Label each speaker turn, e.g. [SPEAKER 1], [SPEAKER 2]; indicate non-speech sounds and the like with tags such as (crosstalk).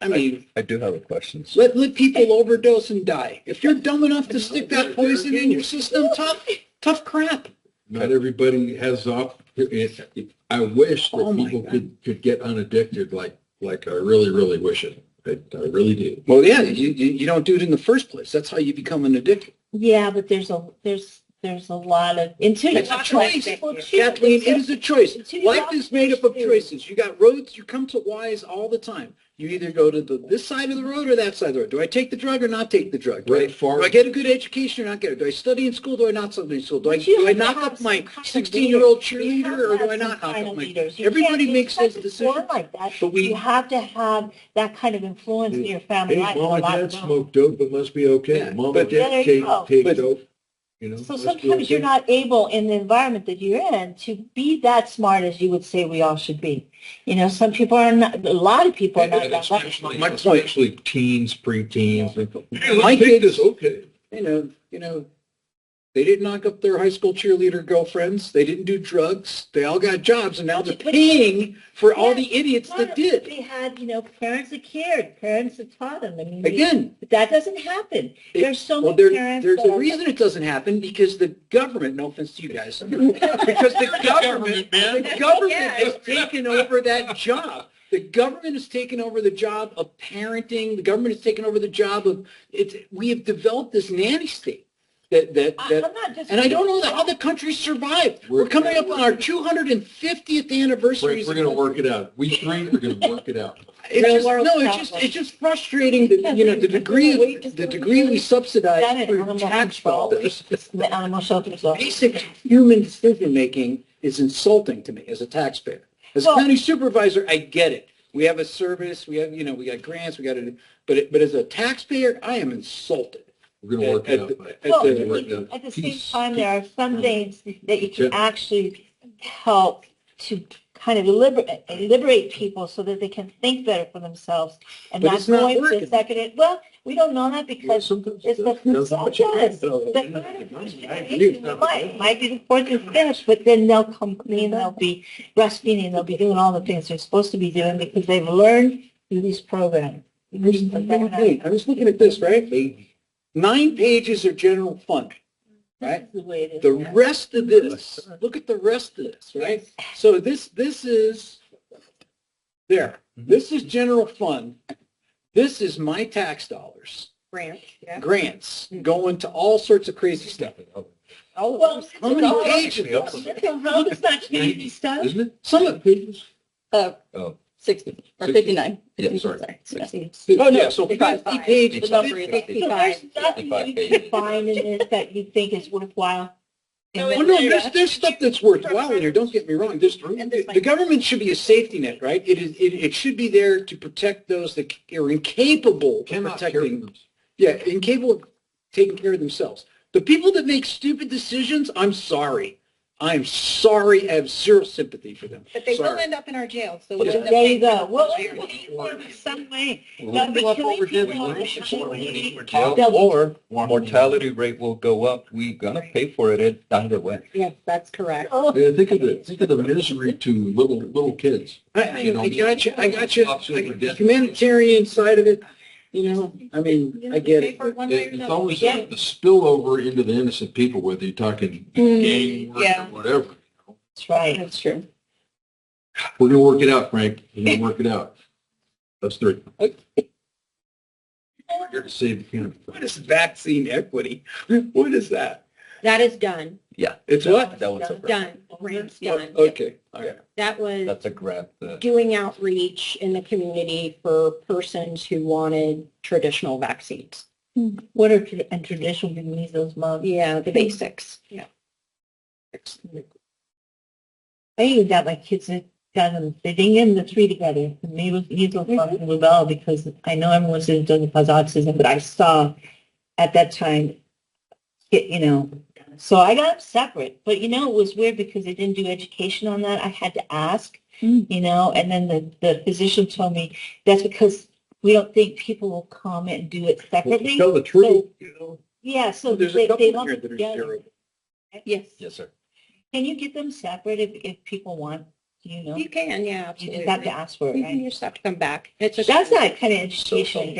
[SPEAKER 1] I mean,
[SPEAKER 2] I do have a question.
[SPEAKER 1] let, let people overdose and die. If you're dumb enough to stick that poison in your system, tough, tough crap.
[SPEAKER 3] Not everybody has op, it- it- I wish
[SPEAKER 1] Oh
[SPEAKER 3] that
[SPEAKER 1] my
[SPEAKER 3] people
[SPEAKER 1] God.
[SPEAKER 3] could, could get unaddicted like, like I really, really wish it. I, I really do.
[SPEAKER 1] Well, yeah, you, you, you don't do it in the first place. That's how you become an addict.
[SPEAKER 4] Yeah, but there's a, there's, there's a lot of, until you
[SPEAKER 1] It's a
[SPEAKER 4] talk about
[SPEAKER 1] choice.
[SPEAKER 4] people choose.
[SPEAKER 1] Kathleen, it is a choice.
[SPEAKER 4] Until you
[SPEAKER 1] Life
[SPEAKER 4] talk
[SPEAKER 1] is made up of
[SPEAKER 4] about
[SPEAKER 1] choices. You got roads, you come to wise all the time. You either go to the, this side of the road or that side of the road. Do I take the drug or not take the drug? Do I-
[SPEAKER 3] Right, far-
[SPEAKER 1] Do I get a good education or not get it? Do I study in school? Do I not study in school? Do I,
[SPEAKER 4] But you
[SPEAKER 1] do I
[SPEAKER 4] have to
[SPEAKER 1] knock
[SPEAKER 4] have
[SPEAKER 1] up
[SPEAKER 4] some
[SPEAKER 1] my
[SPEAKER 4] kind of
[SPEAKER 1] sixteen-year-old
[SPEAKER 4] leader. You have
[SPEAKER 1] cheerleader
[SPEAKER 4] to
[SPEAKER 1] or do
[SPEAKER 4] have
[SPEAKER 1] I not
[SPEAKER 4] some
[SPEAKER 1] knock
[SPEAKER 4] kind
[SPEAKER 1] up
[SPEAKER 4] of
[SPEAKER 1] my?
[SPEAKER 4] leaders. You
[SPEAKER 1] Everybody
[SPEAKER 4] can't
[SPEAKER 1] makes
[SPEAKER 4] expect
[SPEAKER 1] those
[SPEAKER 4] it to work
[SPEAKER 1] decisions.
[SPEAKER 4] Like that,
[SPEAKER 1] But we-
[SPEAKER 4] you have to have that kind of influence in your family
[SPEAKER 3] Hey,
[SPEAKER 4] life. for a
[SPEAKER 3] mom and
[SPEAKER 4] lot
[SPEAKER 3] dad
[SPEAKER 4] of them.
[SPEAKER 3] smoked dope, it must be okay.
[SPEAKER 1] Yeah,
[SPEAKER 3] Mom
[SPEAKER 1] but-
[SPEAKER 3] and
[SPEAKER 4] There
[SPEAKER 3] dad
[SPEAKER 4] you
[SPEAKER 3] take,
[SPEAKER 4] go.
[SPEAKER 3] take
[SPEAKER 1] But-
[SPEAKER 3] dope, you know.
[SPEAKER 4] So
[SPEAKER 3] let's do our
[SPEAKER 4] sometimes you're
[SPEAKER 3] thing.
[SPEAKER 4] not able in the environment that you're in to be that smart as you would say we all should be. You know, some people are not, a lot of people are
[SPEAKER 3] And-
[SPEAKER 4] not
[SPEAKER 3] and
[SPEAKER 4] that lucky.
[SPEAKER 3] Especially
[SPEAKER 1] My point-
[SPEAKER 3] especially teens, preteens. they go, "Hey,
[SPEAKER 1] My
[SPEAKER 3] Let's take
[SPEAKER 1] kids-
[SPEAKER 3] this, okay.
[SPEAKER 1] you know, you know, they didn't knock up their high school cheerleader girlfriends. They didn't do drugs. They all got jobs, and now they're paying for all the idiots that did.
[SPEAKER 4] They had, you know, parents that cared, parents that taught them. I mean, we-
[SPEAKER 1] Again,
[SPEAKER 4] but that doesn't happen.
[SPEAKER 1] It-
[SPEAKER 4] There's so
[SPEAKER 1] well,
[SPEAKER 4] many
[SPEAKER 1] there,
[SPEAKER 4] parents.
[SPEAKER 1] there's
[SPEAKER 4] that
[SPEAKER 1] a
[SPEAKER 4] are-
[SPEAKER 1] reason it doesn't happen because the government. No offense to you
[SPEAKER 4] (laughs)
[SPEAKER 1] guys, because the government, the government has taken over that job. The government has taken over the job of parenting. The government has taken over the job of it's. We have developed this nanny state that that
[SPEAKER 4] I-
[SPEAKER 1] that
[SPEAKER 4] I'm not just-
[SPEAKER 1] And I don't know that how the country survived. We're
[SPEAKER 3] We're-
[SPEAKER 1] coming up on our 250th anniversary.
[SPEAKER 3] Frank, we're gonna work it out. We three are gonna work it out.
[SPEAKER 1] It's
[SPEAKER 4] Real
[SPEAKER 1] just,
[SPEAKER 4] world
[SPEAKER 1] no, it's
[SPEAKER 4] problem.
[SPEAKER 1] just, it's just frustrating that, you know, the degree, of- the degree we subsidize
[SPEAKER 4] Senate
[SPEAKER 1] through
[SPEAKER 4] animal
[SPEAKER 1] tax
[SPEAKER 4] control.
[SPEAKER 1] dollars.
[SPEAKER 4] The animal shelters. law.
[SPEAKER 1] Basic human decision-making is insulting to me as a taxpayer. As a
[SPEAKER 4] Well-
[SPEAKER 1] county supervisor, I get it. We have a service, we have, you know, we got grants, we got it, but, it- but as a taxpayer, I am insulted.
[SPEAKER 3] We're gonna work
[SPEAKER 1] at
[SPEAKER 3] it out.
[SPEAKER 1] the-
[SPEAKER 3] Mike.
[SPEAKER 1] at
[SPEAKER 4] Well,
[SPEAKER 1] the-
[SPEAKER 3] We're gonna work it out.
[SPEAKER 4] at the same
[SPEAKER 3] Peace,
[SPEAKER 4] time,
[SPEAKER 3] peace.
[SPEAKER 4] there are some things that you can
[SPEAKER 3] Yeah.
[SPEAKER 4] actually help to kind of liberate, liberate people so that they can think better for themselves and
[SPEAKER 1] But
[SPEAKER 4] not
[SPEAKER 1] it's not
[SPEAKER 4] going for
[SPEAKER 1] working.
[SPEAKER 4] the second, well, we don't know that
[SPEAKER 3] Well,
[SPEAKER 4] because
[SPEAKER 3] sometimes
[SPEAKER 4] it's the-
[SPEAKER 3] that's- that's
[SPEAKER 4] that's
[SPEAKER 3] what you
[SPEAKER 4] what it is.
[SPEAKER 3] can.
[SPEAKER 4] the third might, might be the fourth and fifth, but then they'll come clean, they'll be breastfeeding, they'll be doing all the things they're supposed to be doing because they've learned through these programs.
[SPEAKER 1] I'm just- I'm looking at it. I'm just looking at this, right? Nine pages are general fund.
[SPEAKER 4] This is the way it is.
[SPEAKER 1] The
[SPEAKER 4] now.
[SPEAKER 1] rest of this, look at the rest of this, right? So this, this is, there, this is general fund. This is my tax dollars,
[SPEAKER 4] Grant, yeah.
[SPEAKER 1] grants, going to all sorts of crazy stuff.
[SPEAKER 5] Oh,
[SPEAKER 4] Well,
[SPEAKER 1] How many pages?
[SPEAKER 4] The road is not changing stuff.
[SPEAKER 3] Isn't it?
[SPEAKER 1] Some of,
[SPEAKER 3] Pages?
[SPEAKER 5] uh, Sixty, or
[SPEAKER 3] Oh. Sixty.
[SPEAKER 5] fifty-nine.
[SPEAKER 3] Yeah, sorry.
[SPEAKER 5] Sixty.
[SPEAKER 1] oh, no, so fifty
[SPEAKER 5] Fifty-five.
[SPEAKER 1] pages.
[SPEAKER 5] The number is
[SPEAKER 1] fifty-
[SPEAKER 4] So there's nothing
[SPEAKER 2] Fifty-five
[SPEAKER 4] you
[SPEAKER 2] pages.
[SPEAKER 4] can find in this that you think is worthwhile.
[SPEAKER 5] No,
[SPEAKER 1] Oh, no, there's, there's stuff that's worthwhile in here, don't get me wrong, there's,
[SPEAKER 5] And there's
[SPEAKER 1] the government should be a safety net, right? It is, it, it should be there to protect those that are incapable of
[SPEAKER 3] Cannot carry
[SPEAKER 1] protecting
[SPEAKER 3] them.
[SPEAKER 1] Yeah, incapable of taking care of themselves. The people that make stupid decisions, I'm sorry. I'm sorry. I have zero sympathy for them.
[SPEAKER 5] But they will
[SPEAKER 1] Sorry.
[SPEAKER 5] end up in our jails, so.
[SPEAKER 1] Yeah.
[SPEAKER 5] we'll end up
[SPEAKER 4] There you
[SPEAKER 5] paying
[SPEAKER 4] go. Well,
[SPEAKER 5] for them.
[SPEAKER 4] in some way.
[SPEAKER 2] Well,
[SPEAKER 4] But
[SPEAKER 2] look
[SPEAKER 4] killing
[SPEAKER 2] what we're doing.
[SPEAKER 4] people
[SPEAKER 2] We're
[SPEAKER 4] is
[SPEAKER 2] supporting
[SPEAKER 4] killing
[SPEAKER 2] it.
[SPEAKER 4] people.
[SPEAKER 2] Jail Or mortality rate will go up. We gonna pay for it at- either way.
[SPEAKER 5] Yes, that's correct.
[SPEAKER 4] Oh,
[SPEAKER 3] Yeah, think of it, think of the misery to little, little kids.
[SPEAKER 1] I,
[SPEAKER 3] You
[SPEAKER 1] I,
[SPEAKER 3] know,
[SPEAKER 1] I got you. I got you.
[SPEAKER 3] absolutely.
[SPEAKER 1] The humanitarian side of it, you know, I mean, I get
[SPEAKER 5] Pay
[SPEAKER 1] it.
[SPEAKER 5] for it one way or
[SPEAKER 3] It- It's
[SPEAKER 5] another.
[SPEAKER 3] always
[SPEAKER 4] Yeah.
[SPEAKER 3] the uh, spillover into the innocent people, whether you're talking gang work or
[SPEAKER 5] yeah.
[SPEAKER 3] whatever.
[SPEAKER 4] That's right.
[SPEAKER 5] That's true.
[SPEAKER 3] We're gonna work it out, Frank. We're gonna work it out. That's three. We're here to save the county.
[SPEAKER 1] What is vaccine equity? (laughs) What is that?
[SPEAKER 6] That is done,
[SPEAKER 2] Yeah.
[SPEAKER 1] It's what?
[SPEAKER 2] That one's a grant.
[SPEAKER 6] done, grants done.
[SPEAKER 1] Oh, Okay, all right.
[SPEAKER 6] That was
[SPEAKER 2] That's a grant. uh,
[SPEAKER 6] doing outreach in the community for persons who wanted traditional vaccines.
[SPEAKER 4] What are, tra- and traditional measles, mumps?
[SPEAKER 6] Yeah, the basics. Yeah.
[SPEAKER 4] I even got my kids that got them, they didn't get them the three together, the measles,
[SPEAKER 1] Mm-hmm.
[SPEAKER 4] measles, mumps, and rubella, because I know everyone says it doesn't cause autism, but I saw at that time, it, you know, so I got them separate. But you know, it was weird because they didn't do education on that. I had to ask,
[SPEAKER 5] Mm.
[SPEAKER 4] you know, and then the, the physician told me that's because we don't think people will come and do it separately.
[SPEAKER 3] Tell the truth, you know.
[SPEAKER 4] Yeah, so
[SPEAKER 1] There's
[SPEAKER 4] they,
[SPEAKER 1] a
[SPEAKER 4] they
[SPEAKER 1] couple
[SPEAKER 4] lump
[SPEAKER 1] here
[SPEAKER 4] it
[SPEAKER 1] that are
[SPEAKER 4] together.
[SPEAKER 1] terrible.
[SPEAKER 6] Yes.
[SPEAKER 2] Yes, sir.
[SPEAKER 4] Can you get them separate if, if people want Do you know?
[SPEAKER 5] You can,
[SPEAKER 4] You
[SPEAKER 5] yeah,
[SPEAKER 4] just
[SPEAKER 5] absolutely.
[SPEAKER 4] have to ask for it,
[SPEAKER 5] Mhm, You
[SPEAKER 4] right?
[SPEAKER 5] just have to come back. It's a.
[SPEAKER 4] That's that kind of education